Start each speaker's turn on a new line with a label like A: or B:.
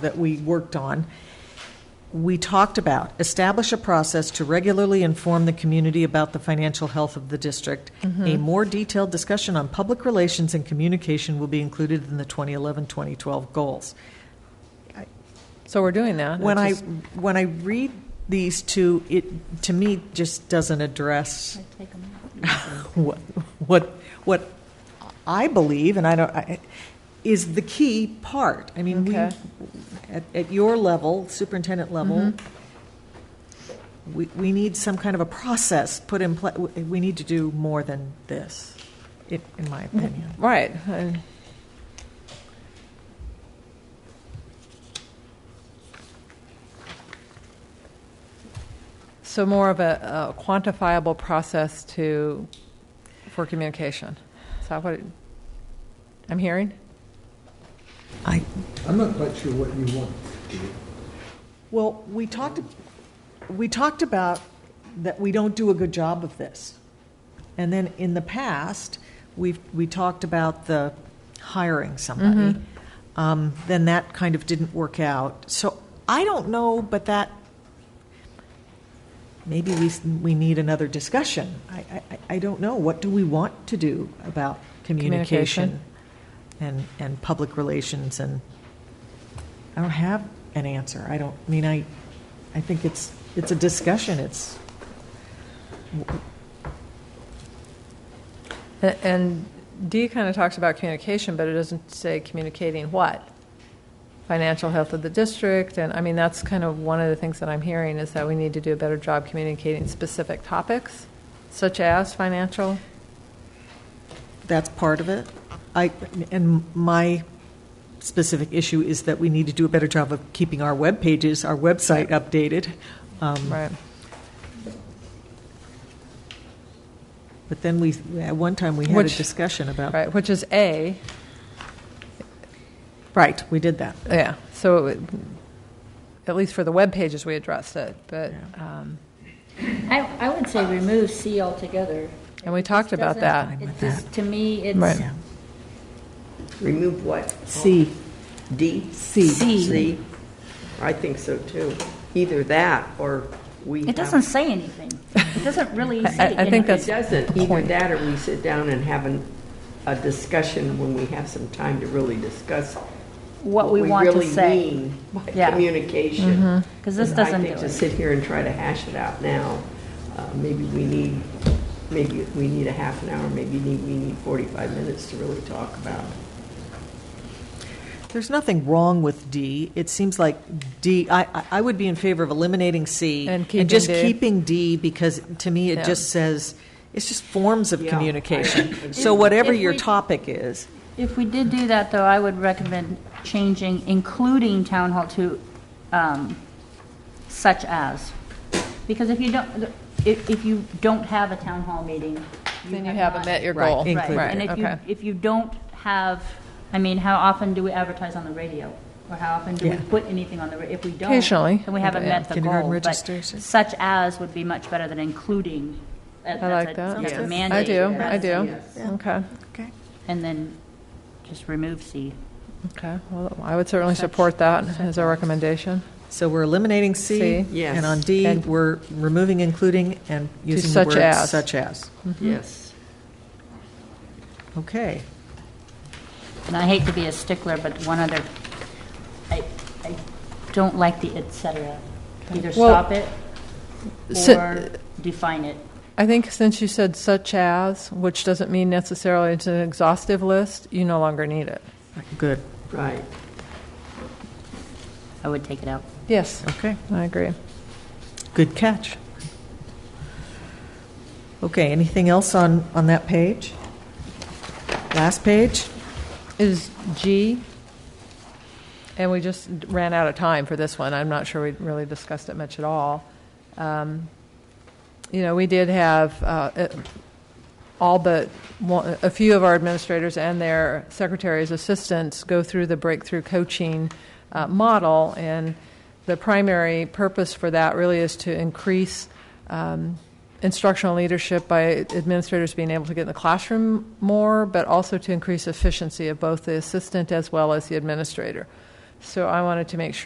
A: that we worked on, we talked about establish a process to regularly inform the community about the financial health of the district. A more detailed discussion on public relations and communication will be included in the 2011 2012 goals.
B: So we're doing that.
A: When
B: It's
A: I
B: just-
A: when I read these two, it to me just doesn't address what what what I believe, and I don't I, is the key part. I mean,
B: Okay.
A: we at, at your level, superintendent level. We, we need some kind of a process put in place. We need to do more than this, in, in my opinion.
B: Right. I- So more of a a quantifiable process to, for communication. Is that what it- I'm hearing?
A: I,
C: I'm not quite sure what you want.
A: Well, we talked, we talked about that we don't do a good job of this. And then in the past, we've, we talked about the hiring somebody. Um, Then that kind of didn't work out. So I don't know, but that, maybe we, s- we need another discussion. I, I- I, I don't know. What do we want to do about communication?
B: Communication.
A: And, and public relations and I don't have an answer. I don't, I mean, I, I think it's, it's a discussion. It's,
B: A- And D kind of talks about communication, but it doesn't say communicating what? Financial health of the district, and I mean, that's kind of one of the things that I'm hearing is that we need to do a better job communicating specific topics, such as financial.
A: that's part of it. I, and my specific issue is that we need to do a better job of keeping our web pages, our website updated. Um,
B: Right.
A: But then we, at one time, we had a
B: Which-
A: discussion about,
B: Right, which is A,
A: right, we did that.
B: yeah, so it would- at least for the web pages, we addressed it, but, um,
D: I, I would say remove C altogether.
B: and we talked
D: It
B: about
D: doesn't-
B: that.
A: Fine
D: It
A: with
D: just, to me,
B: Right.
D: it's,
A: Yeah.
E: Remove what?
A: C,
E: D?
A: C.
D: C.
E: C? I think so too. Either that or we
D: it
E: have-
D: doesn't say anything. It doesn't really say
B: I
D: anything.
B: think that's-
E: It doesn't. Either that or we sit down and have an- a discussion when we have some time to really discuss.
D: What we want to
E: really
D: say.
E: mean By
D: Yeah.
E: communication.
D: 'Cause this
E: I
D: doesn't
E: think
D: do
E: to
D: it.
E: sit here and try to hash it out now, uh, maybe we need, maybe we need a half an hour, maybe need- we need 45 minutes to really talk about it.
A: There's nothing wrong with D. It seems like D, I, I- I would be in favor of eliminating C.
B: And keeping
A: just
B: D.
A: keeping D because to me, it
B: Yeah.
A: just says, it's just forms of
E: Yeah, I
A: communication.
E: agree.
A: So whatever
D: If
A: your
D: we-
A: topic is,
D: If we did do that, though, I would recommend changing including town hall to um, such as. Because if you don't, if, if you don't have a town hall meeting.
B: Then you haven't
D: not-
B: met your
A: Right.
B: goal.
A: Include
D: Right,
A: it.
D: and if you,
B: okay.
D: if you don't have, I mean, how often do we advertise on the radio? Or how often do we
A: Yeah.
D: put anything on the, ra- if we don't?
B: Occasionally.
D: Then we haven't
B: Yeah.
D: met the
A: Kindergarten
D: goal. but
A: registration.
D: Such as would be much better than including. uh,
B: I like that.
D: That's a
E: Yes.
B: I
D: mandate.
B: do, I
D: rather
B: do.
D: than-
B: Okay,
D: And then just remove C.
B: okay. Well, I would certainly support that as a recommendation.
A: so we're eliminating C.
B: C.
E: Yes.
A: And on D,
B: And-
A: we're removing including and using the
B: such
A: word
B: as.
A: such as.
D: Mm-hmm.
E: Yes.
A: Okay.
D: And I hate to be a stickler, but one other, I, I don't like the et cetera. Either
B: Well,
D: stop it
B: so-
D: or define it.
B: I think since you said such as, which doesn't mean necessarily it's an exhaustive list, you no longer need it.
A: Good.
E: Right.
D: I would take it out.
B: Yes,
A: Okay.
B: I agree.
A: Good catch. Okay. Anything else on, on that page? Last page?
B: Is G, and we just ran out of time for this one, I'm not sure we really discussed it much at all. Um, You know, we did have uh, it- all but one- a few of our administrators and their secretaries, assistants go through the breakthrough coaching uh, model, and the primary purpose for that really is to increase um, instructional leadership by administrators being able to get in the classroom more, but also to increase efficiency of both the assistant as well as the administrator. So I wanted to make sure